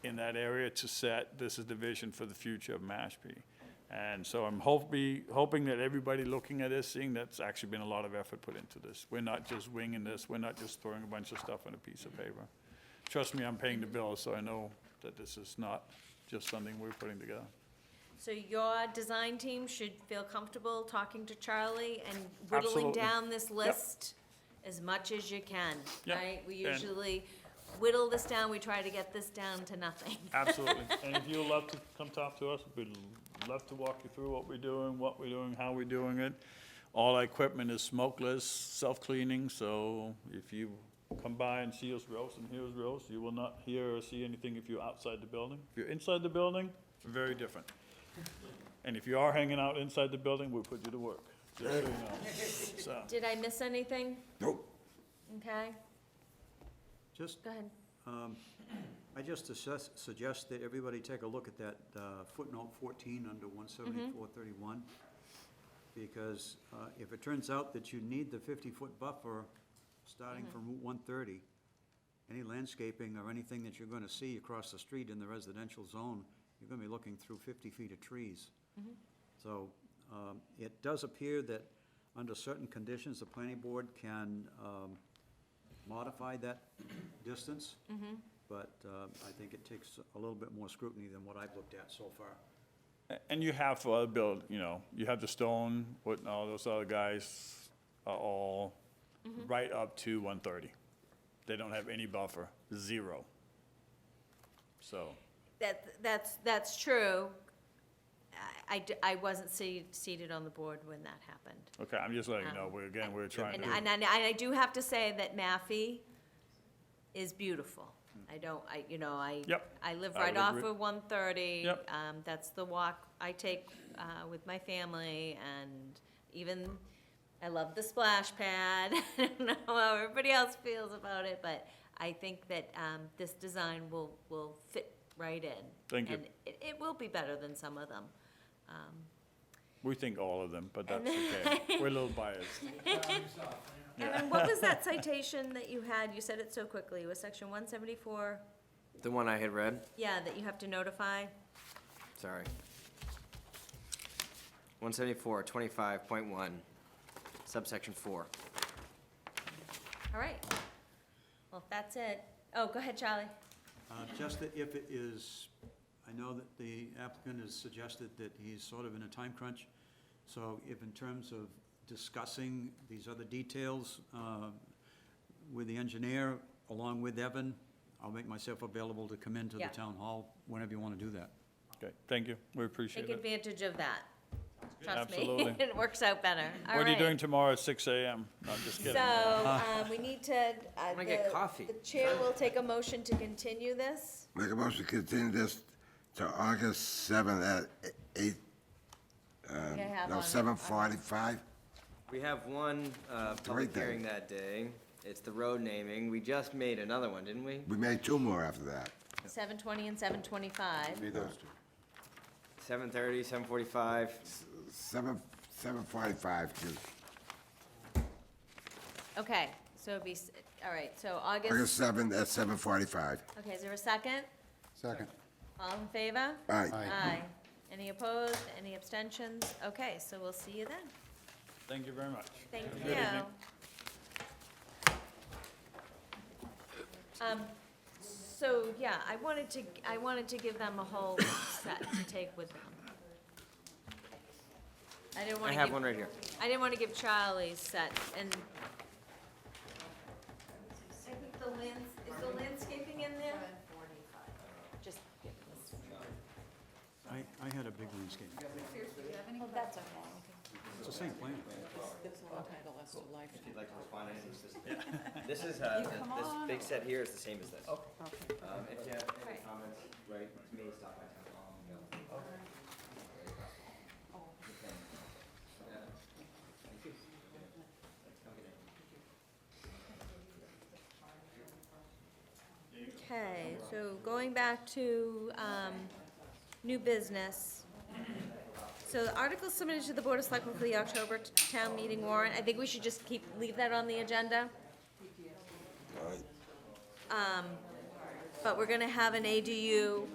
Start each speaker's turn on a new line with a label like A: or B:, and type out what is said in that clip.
A: in that area to set, this is the vision for the future of Mashpee. And so I'm hope, be, hoping that everybody looking at this, seeing that's actually been a lot of effort put into this. We're not just winging this, we're not just throwing a bunch of stuff on a piece of paper. Trust me, I'm paying the bills, so I know that this is not just something we're putting together.
B: So your design team should feel comfortable talking to Charlie and whittling
A: Absolutely.
B: down this
A: Yep.
B: list as much as you can,
A: Yep.
B: right? We
A: And-
B: usually whittle this down, we try to get this down to nothing.
A: Absolutely. And if you'd love to come talk to us, we'd love to walk you through what we're doing, what we're doing, how we're doing it. All our equipment is smokeless, self-cleaning, so if you come by and see us roast and hear us roast, you will not hear or see anything if you're outside the building. If you're inside the building, very different. And if you are hanging out inside the building, we'll put you to work, just so you know. So,
B: Did I miss anything?
C: Nope.
B: Okay,
C: Just,
B: go ahead.
C: um, I just assess, suggest that everybody take a look at that uh, footnote fourteen under one seventy-four thirty-one. Because, uh, if it turns out that you need the fifty-foot buffer, starting from Route one thirty, any landscaping or anything that you're gonna see across the street in the residential zone, you're gonna be looking through fifty feet of trees. So, um, it does appear that, under certain conditions, the planning board can, um, modify that distance.
B: Mm-hmm.
C: But uh, I think it takes a little bit more scrutiny than what I've looked at so far.
A: A- And you have for other build, you know, you have the Stone, what, and all those other guys are all
B: Mm-hmm.
A: right up to one thirty. They don't have any buffer, zero. So,
B: That, that's, that's true. I, I d- I wasn't se- seated on the board when that happened.
A: okay, I'm just letting you know,
B: Um,
A: we're, again, we're trying
B: And,
A: to,
B: and I- and I do have to say that Maffey is beautiful. I don't, I, you know, I.
A: Hmm. Yep.
B: I live
A: I
B: right
A: would
B: off
A: agree.
B: of one thirty.
A: Yep.
B: Um, that's the walk I take, uh, with my family and even, I love the splash pad. I don't know how everybody else feels about it, but I think that, um, this design will, will fit right in.
A: Thank you.
B: And it, it will be better than some of them. Um,
A: we think all of them, but that's okay. We're a little biased.
B: And then what was that citation that you had? You said it so quickly. It was section one seventy-four?
D: The one I had read,
B: Yeah, that you have to notify?
D: sorry. One seventy-four, twenty-five point one, subsection four.
B: All right. Well, if that's it. Oh, go ahead, Charlie.
C: Uh, Just that if it is, I know that the applicant has suggested that he's sort of in a time crunch. So if in terms of discussing these other details uh, with the engineer, along with Evan, I'll make myself available to come into the
B: Yeah.
C: town hall whenever you want to do that.
A: Okay, thank you, we appreciate
B: Take
A: it.
B: advantage of that. Trust me,
A: Absolutely.
B: it works out better. All
A: What are you
B: right.
A: doing tomorrow at six AM? No, I'm just
B: So,
A: kidding.
B: um, we need to, uh,
D: gonna get
B: the-
D: coffee.
B: The chair will take a motion to continue this.
E: Make a motion to continue this to August 7th at 8,
B: Can I have
E: no,
B: on-
E: 7:45?
D: We have one, uh, public
E: Right there.
D: hearing that day. It's the road naming. We just made another one, didn't we?
E: We made two more after that.
B: Seven twenty and seven twenty-five.
E: Made those two.
D: Seven thirty, seven forty-five.
E: 7, 7:45, too.
B: Okay, so it'd be, s- all right, so
E: August
B: August,
E: 7th at 7:45.
B: okay, is there a second?
F: Second.
B: All in favor?
E: Aye.
B: Aye. Any opposed? Any abstentions? Okay, so we'll see you then.
A: Thank you very much.
B: Thank
A: Have a
B: you.
A: good evening.
B: Um, so, yeah, I wanted to, I wanted to give them a whole set to take with them. I didn't
D: I
B: wanna
D: have one
B: give,
D: right here.
B: I didn't wanna give Charlie set and. I think the lands, is the landscaping in there? Just give this.
C: I, I had a big landscape.
B: Well, that's okay.
C: It's the same plan.
D: If you'd like to respond to any of this. This is, uh, this big set here is the same as this. Um, if you have any
B: Right.
D: comments, right, to me, stop by town hall. and they'll-
B: Okay, so going back to, um, new business. So the article submitted to the Board of Selectmen for the October t- town meeting warrant, I think we should just keep, leave that on the agenda. Um, But we're gonna have an ADU